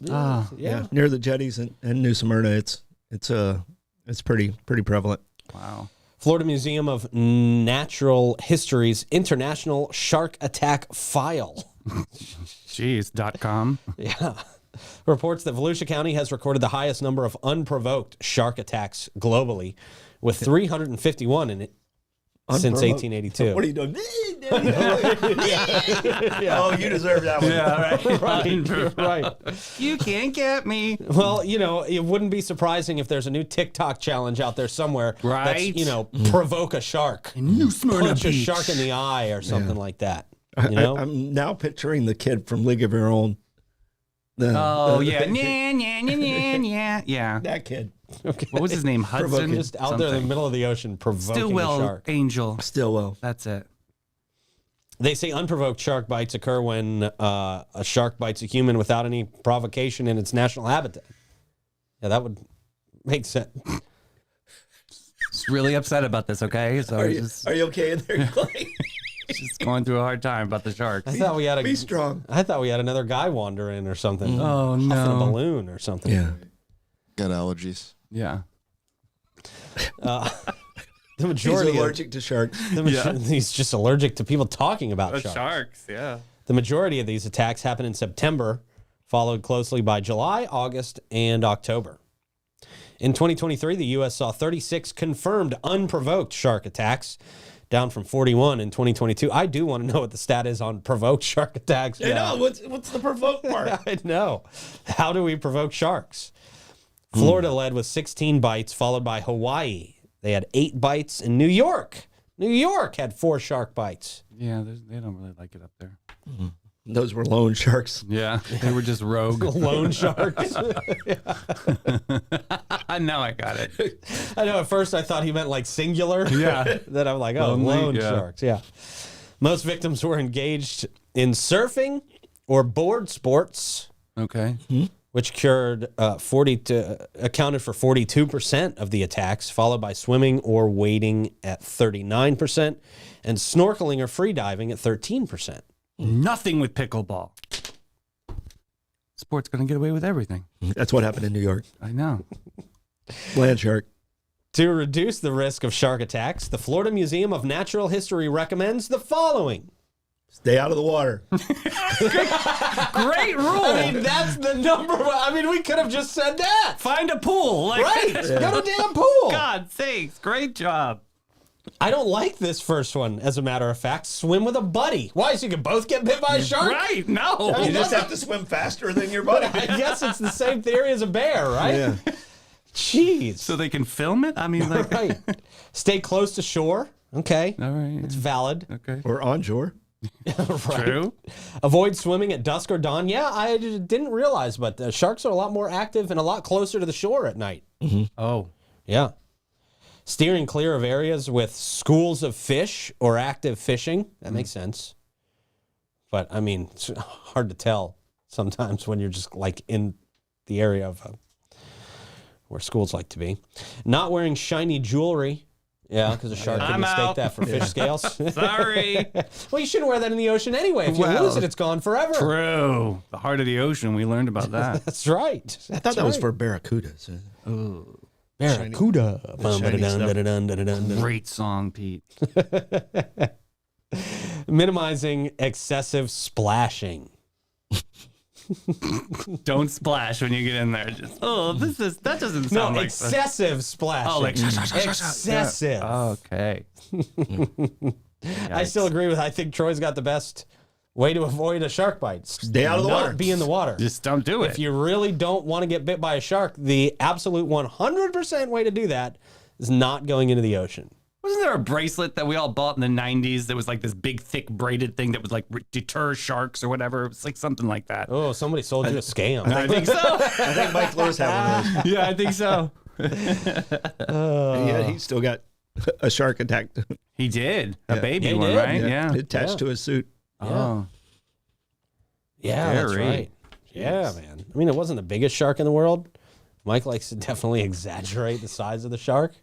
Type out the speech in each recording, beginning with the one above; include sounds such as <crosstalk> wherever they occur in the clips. Yeah, Ah, yeah. yeah. near the jetties in, in New Smyrna. It's it's uh it's pretty pretty prevalent. Wow. Florida Museum of Natural History's International Shark Attack File. <laughs> Jeez. Dot com. Yeah. Reports that Volusia County has recorded the highest number of unprovoked shark attacks globally, with 351 in it since Unprovoked? What are 1882. you <laughs> doing? Oh, you deserve that one. <laughs> Right, right. right. <laughs> You can't get me. Well, you know, it wouldn't be surprising if there's a new TikTok challenge out there somewhere. Right. That's, you know, provoke a shark, New Smyrna punch a shark <laughs> in the eye, or something like that. You know, I, I'm now picturing the kid from League of Your Own. The- Oh the- <laughs> yeah. Nya, nya, nya, nya, nya. Yeah. that kid <laughs> What was his name? Hudson. just out there in the something. middle of the ocean, provoking a Stillwell shark. Angel. Stillwell. That's it. They say unprovoked shark bites occur when uh, a shark bites a human without any provocation in its national habitat. Yeah, that would make sense. Just really upset about this. Okay. So Are I'm you, just, are you okay in there, Clay? just going through a hard time about the shark. I thought we had Be a, strong. I thought we had another guy wander in or something. Oh Huffing a no. balloon or something. <laughs> Yeah. Got allergies. Yeah. The He's majority of allergic to <laughs> sharks. The Yeah. major- <laughs> He's just allergic to people talking about sharks. Yeah. The majority of these attacks happen in September, followed closely by July, August, and October. In 2023, the U.S. saw 36 confirmed unprovoked shark attacks, down from 41 in 2022. I do want to know what the stat is on provoked shark <laughs> attacks. I now. know. What's what's the provoke <laughs> part? I know. How do we provoke sharks? Florida led with 16 bites, followed by Hawaii. They had eight bites, and New York. New York had four shark bites. Yeah. there's- They don't really like it up there. Those were lone sharks. Yeah. <laughs> They were just rogue. Lone sharks. now <laughs> I got it. <laughs> I know at first I thought he meant like singular. Yeah. <laughs> then I'm like, oh, Lonely, lone yeah. sharks. Yeah. Most victims were engaged in surfing or board sports, Okay. which cured uh, 40 to, accounted for 42% of the attacks, followed by swimming or wading at 39%, and snorkeling or free diving at 13%. Nothing with pickleball. Sport's gonna get away with everything. That's what happened in New York. I know. Land shark. To reduce the risk of shark attacks, the Florida Museum of Natural History recommends the following. Stay out of the water. <laughs> Great rule. I mean, that's the number one. I mean, we could have just said that. Find a pool. Like, Right. Go to damn pool. God, thanks. Great job. I don't like this first one, as a matter of fact. Swim with a buddy. Why? So you can both get bit by a shark? Right. No. You <laughs> just have to swim faster than your buddy. I guess it's the same theory as a bear, right? Yeah. Jeez. So they can film it? I mean, <laughs> like, right. Stay close to shore. Okay. all right. It's valid. okay. Or onshore. <laughs> right. True. Avoid swimming at dusk or dawn. Yeah, I d- didn't realize, but the sharks are a lot more active and a lot closer to the shore at night. Oh. Yeah. Steering clear of areas with schools of fish or active fishing. That makes Mm-hmm. sense. But I mean, it's <laughs> hard to tell sometimes when you're just like in the area of uh, where schools like to be. Not wearing shiny jewelry. Yeah, because a shark can I'm mistake out. that for fish <laughs> scales. <laughs> Sorry. well, you shouldn't wear that in the ocean anyway. If you Well, lose it, it's gone forever. True. The heart of the ocean. We learned about that. That's right. That's I thought that was for barracudas. Barracuda. shiny stuff. Bum-ba-da-dun-da-da-dun-da-dun. <laughs> Great song, Pete. minimizing excessive splashing. Don't splash when you get in there. Just, oh, this is that doesn't No, sound like fun. excessive splashing. Oh, like excessive. Oh, <laughs> okay. I still agree with. I think Troy's got the best way to avoid a shark bite. Stay out of the Not water. Be in the water. just don't do it. if you really don't want to get bit by a shark, the absolute 100% way to do that is not going into the ocean. Wasn't there a bracelet that we all bought in the '90s that was like this big, thick braided thing that was like re- deter sharks or whatever? It was like something like that. Oh, somebody sold you a scam. I think so. I think Mike Flores had one of those. yeah, I think so. <laughs> And yet Uh. he still got a shark attacked <laughs> He did a baby He one, did. right? Yeah. attached to his suit. Oh, yeah, that's Very. right. Yeah, man. I mean, it wasn't the biggest shark in the world. Mike likes to <laughs> definitely exaggerate the size of the shark.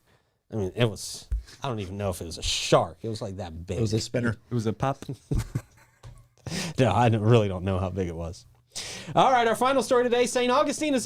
I mean, it was. I don't even know if it was a shark. It was like that big. It was a spinner. it was a pop. <laughs> No, I don't- really don't know how big it was. All right, our final story today St. Augustine is